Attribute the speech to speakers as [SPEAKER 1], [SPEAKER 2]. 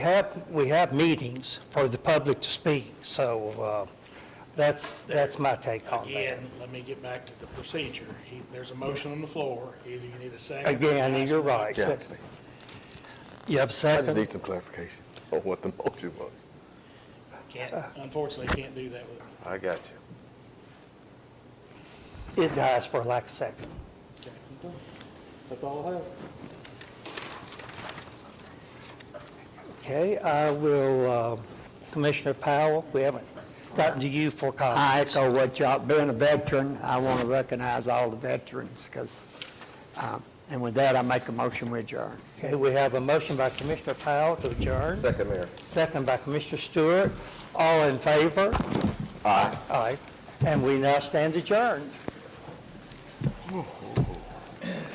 [SPEAKER 1] have, we have meetings for the public to speak, so uh, that's, that's my take on that.
[SPEAKER 2] Again, let me get back to the procedure. He- There's a motion on the floor. Either you need a second.
[SPEAKER 1] Again, you're right.
[SPEAKER 3] Yeah.
[SPEAKER 1] You have a
[SPEAKER 3] I just
[SPEAKER 1] second?
[SPEAKER 3] need some clarification on what the motion was.
[SPEAKER 2] Can't, unfortunately, can't do that with,
[SPEAKER 3] I got you.
[SPEAKER 1] It dies for lack of second.
[SPEAKER 4] That's all I have.
[SPEAKER 1] Okay, I will, uh, Commissioner Powell, we haven't gotten to you for comment.
[SPEAKER 5] I echo what y'all, being a veteran, I want to recognize all the veterans, because, and with that, I make a motion we adjourn.
[SPEAKER 1] Okay, we have a motion by Commissioner Powell to adjourn,
[SPEAKER 3] Second, Mayor.
[SPEAKER 1] second by Commissioner Stewart. All in favor? Aye. Aye. And we now stand adjourned.